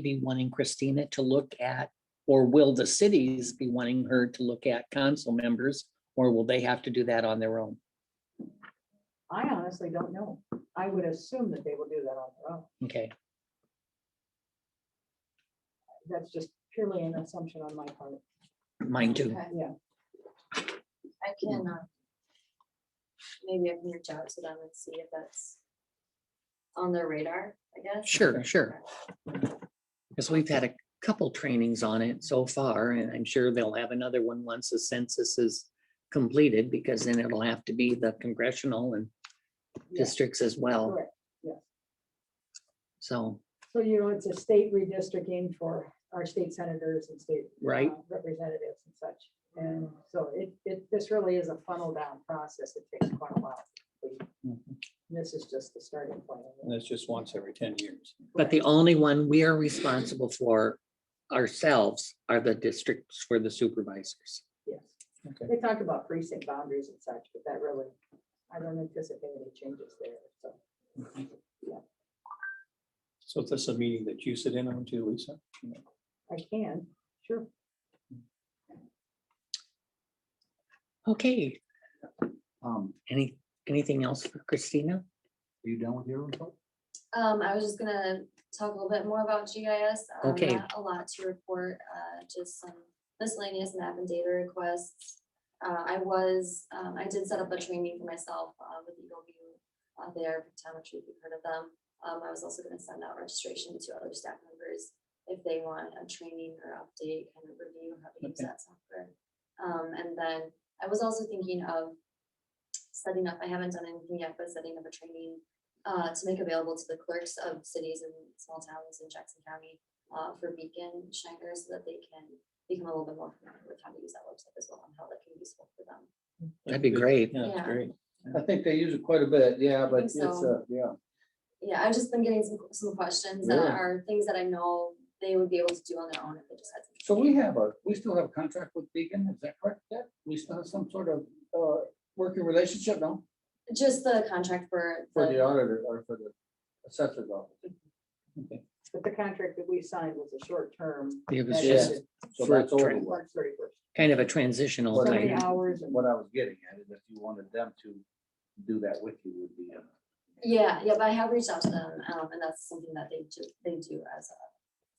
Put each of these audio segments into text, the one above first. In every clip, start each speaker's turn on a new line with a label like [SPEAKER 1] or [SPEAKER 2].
[SPEAKER 1] be wanting Christina to look at, or will the cities be wanting her to look at council members? Or will they have to do that on their own?
[SPEAKER 2] I honestly don't know. I would assume that they will do that on their own.
[SPEAKER 1] Okay,
[SPEAKER 2] That's just purely an assumption on my part.
[SPEAKER 1] mine too.
[SPEAKER 3] Okay,
[SPEAKER 2] Yeah,
[SPEAKER 3] I can, uh, maybe I can reach out to them and see if that's on their radar, I guess.
[SPEAKER 1] Sure, sure. Because we've had a couple trainings on it so far, and I'm sure they'll have another one once the census is completed, because then it'll have to be the congressional and
[SPEAKER 2] yes,
[SPEAKER 1] districts as well,
[SPEAKER 2] correct.
[SPEAKER 1] so,
[SPEAKER 2] So you know, it's a state redistricting for our state senators and state
[SPEAKER 1] right?
[SPEAKER 2] uh, representatives and such. And so it, it, this really is a funnel down process. It takes quite a while.
[SPEAKER 1] Mhm.
[SPEAKER 2] This is just the starting point.
[SPEAKER 4] And that's just once every ten years.
[SPEAKER 1] But the only one we are responsible for ourselves are the districts for the supervisors.
[SPEAKER 2] Yes.
[SPEAKER 4] Okay.
[SPEAKER 2] They talk about precinct boundaries and such, but that really, I don't anticipate any changes there. So
[SPEAKER 4] So is this a meeting that you sit in on too, Lisa?
[SPEAKER 2] I can, sure.
[SPEAKER 1] Okay,
[SPEAKER 5] Um,
[SPEAKER 1] any, anything else for Christina?
[SPEAKER 5] are you done with your report?
[SPEAKER 3] Um, I was just gonna talk a little bit more about GIS. um,
[SPEAKER 1] Okay.
[SPEAKER 3] not A lot to report, uh, just some miscellaneous map and data requests. Uh, I was, um, I did set up a training for myself, uh, with Eagle View, uh, there, Pictometry, if you've heard of them. Um, I was also gonna send out registration to other staff members if they want a training or update, kind of review how to use
[SPEAKER 4] Okay.
[SPEAKER 3] that software. Um, and then I was also thinking of setting up, I haven't done anything yet, but setting up a training uh, to make available to the clerks of cities and small towns in Jackson County uh, for beacon shiners so that they can become a little bit more familiar with how to use that website as well and how that can be useful for them.
[SPEAKER 1] That'd be great.
[SPEAKER 4] Yeah, that's
[SPEAKER 3] Yeah.
[SPEAKER 4] great.
[SPEAKER 5] I think they use it quite a bit, yeah,
[SPEAKER 3] but
[SPEAKER 5] but
[SPEAKER 3] it's,
[SPEAKER 5] it's, uh,
[SPEAKER 3] so.
[SPEAKER 5] yeah.
[SPEAKER 3] Yeah, I've just been getting some, some questions that
[SPEAKER 5] Really?
[SPEAKER 3] are things that I know they would be able to do on their own if they just had.
[SPEAKER 5] So we have a, we still have a contract with Beacon, is that correct? Deb? We still have some sort of, uh, working relationship, no?
[SPEAKER 3] Just the contract for.
[SPEAKER 5] For the auditor or for the assessor's office.
[SPEAKER 2] But the contract that we signed was a short term.
[SPEAKER 1] It was
[SPEAKER 2] that
[SPEAKER 5] Yeah.
[SPEAKER 1] just
[SPEAKER 2] ended
[SPEAKER 5] So
[SPEAKER 1] For
[SPEAKER 5] that's over
[SPEAKER 1] training.
[SPEAKER 5] with.
[SPEAKER 2] March thirty first.
[SPEAKER 1] kind of a transitional
[SPEAKER 5] Well,
[SPEAKER 2] So
[SPEAKER 5] I-
[SPEAKER 2] many
[SPEAKER 1] thing.
[SPEAKER 2] hours and
[SPEAKER 5] What I was getting at is if you wanted them to do that with you would be. uh,
[SPEAKER 3] Yeah, yeah, but I have reached out to them, um, and that's something that they do, they do as a,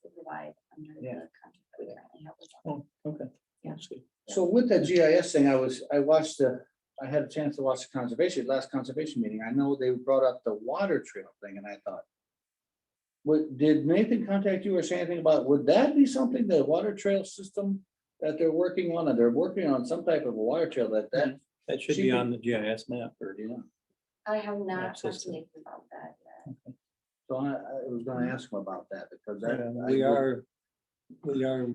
[SPEAKER 3] they provide under the
[SPEAKER 5] Yeah.
[SPEAKER 3] contract that we currently have with them.
[SPEAKER 4] Okay.
[SPEAKER 3] Yeah.
[SPEAKER 4] That's good.
[SPEAKER 5] So with that GIS thing, I was, I watched the, I had a chance to watch the conservation, last conservation meeting. I know they brought up the water trail thing and I thought. What, did Nathan contact you or say anything about, would that be something, the water trail system that they're working on? And they're working on some type of a water trail that that,
[SPEAKER 4] That should
[SPEAKER 5] She
[SPEAKER 4] be
[SPEAKER 5] could-
[SPEAKER 4] on the GIS map or,
[SPEAKER 5] you know.
[SPEAKER 3] I have not
[SPEAKER 4] That's
[SPEAKER 3] talked to
[SPEAKER 4] system.
[SPEAKER 3] Nathan about that yet.
[SPEAKER 5] So I, I was gonna ask him about that because
[SPEAKER 4] Uh,
[SPEAKER 5] that. I
[SPEAKER 4] Mm-hmm. we
[SPEAKER 5] would-
[SPEAKER 4] are, we are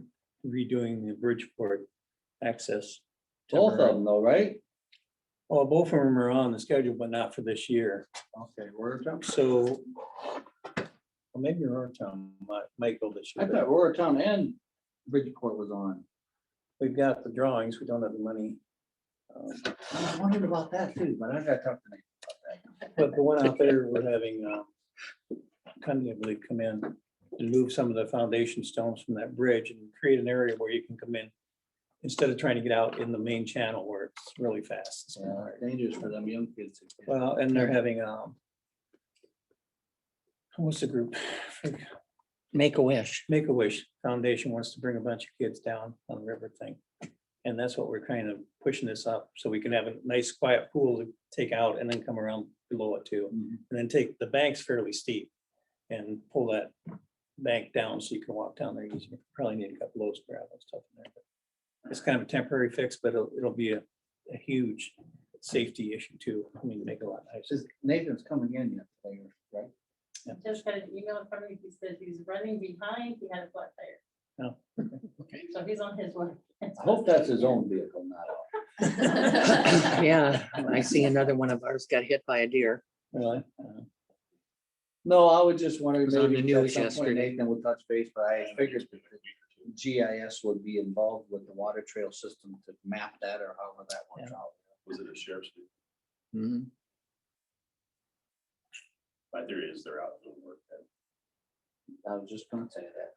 [SPEAKER 4] redoing the Bridgeport access.
[SPEAKER 5] Both of
[SPEAKER 4] temporary.
[SPEAKER 5] them though, right?
[SPEAKER 4] Well, both of them are on the schedule, but not for this year.
[SPEAKER 5] Okay, where town?
[SPEAKER 4] So well, maybe our town might, might go this
[SPEAKER 5] I
[SPEAKER 4] year.
[SPEAKER 5] thought
[SPEAKER 4] but
[SPEAKER 5] Roar Town and Bridgeport was on.
[SPEAKER 4] We've got the drawings. We don't have the money. Um,
[SPEAKER 5] I wondered about that too, but I gotta talk to Nathan.
[SPEAKER 4] But the one out there, we're having, um, Cundy, I believe, come in and move some of the foundation stones from that bridge and create an area where you can come in instead of trying to get out in the main channel where it's really fast. It's kinda
[SPEAKER 5] Yeah,
[SPEAKER 4] hard.
[SPEAKER 5] dangerous for them young kids. to get-
[SPEAKER 4] Well, and they're having, um, what's the group?
[SPEAKER 1] Make a wish.
[SPEAKER 4] Make a Wish Foundation wants to bring a bunch of kids down on the river thing. And that's what we're kind of pushing this up, so we can have a nice quiet pool to take out and then come around below it too.
[SPEAKER 5] Mhm.
[SPEAKER 4] And then take, the bank's fairly steep and pull that bank down so you can walk down there easier. Probably need a couple loads of gravel and stuff in there. but It's kind of a temporary fix, but it'll, it'll be a, a huge safety issue too. I mean, make it a lot nicer.
[SPEAKER 5] Says Nathan's coming in yet, later, right?
[SPEAKER 6] Just got an email from him, he says he's running behind, he had a flat tire.
[SPEAKER 4] Oh,
[SPEAKER 6] So he's on his way.
[SPEAKER 5] I hope that's his own vehicle, not ours.
[SPEAKER 1] Yeah, I see another one of ours got hit by a deer.
[SPEAKER 4] Really? Uh,
[SPEAKER 5] No, I was just wondering.
[SPEAKER 1] was on
[SPEAKER 5] maybe
[SPEAKER 1] the
[SPEAKER 5] at
[SPEAKER 1] news
[SPEAKER 5] some point
[SPEAKER 1] yesterday.
[SPEAKER 5] Nathan would touch base, but I figured that the GIS would be involved with the water trail system to map that or however that works out.
[SPEAKER 7] Was it a sheriff's? meeting?
[SPEAKER 1] Mhm.
[SPEAKER 7] My theory is they're out doing work then.
[SPEAKER 5] I was just gonna say that.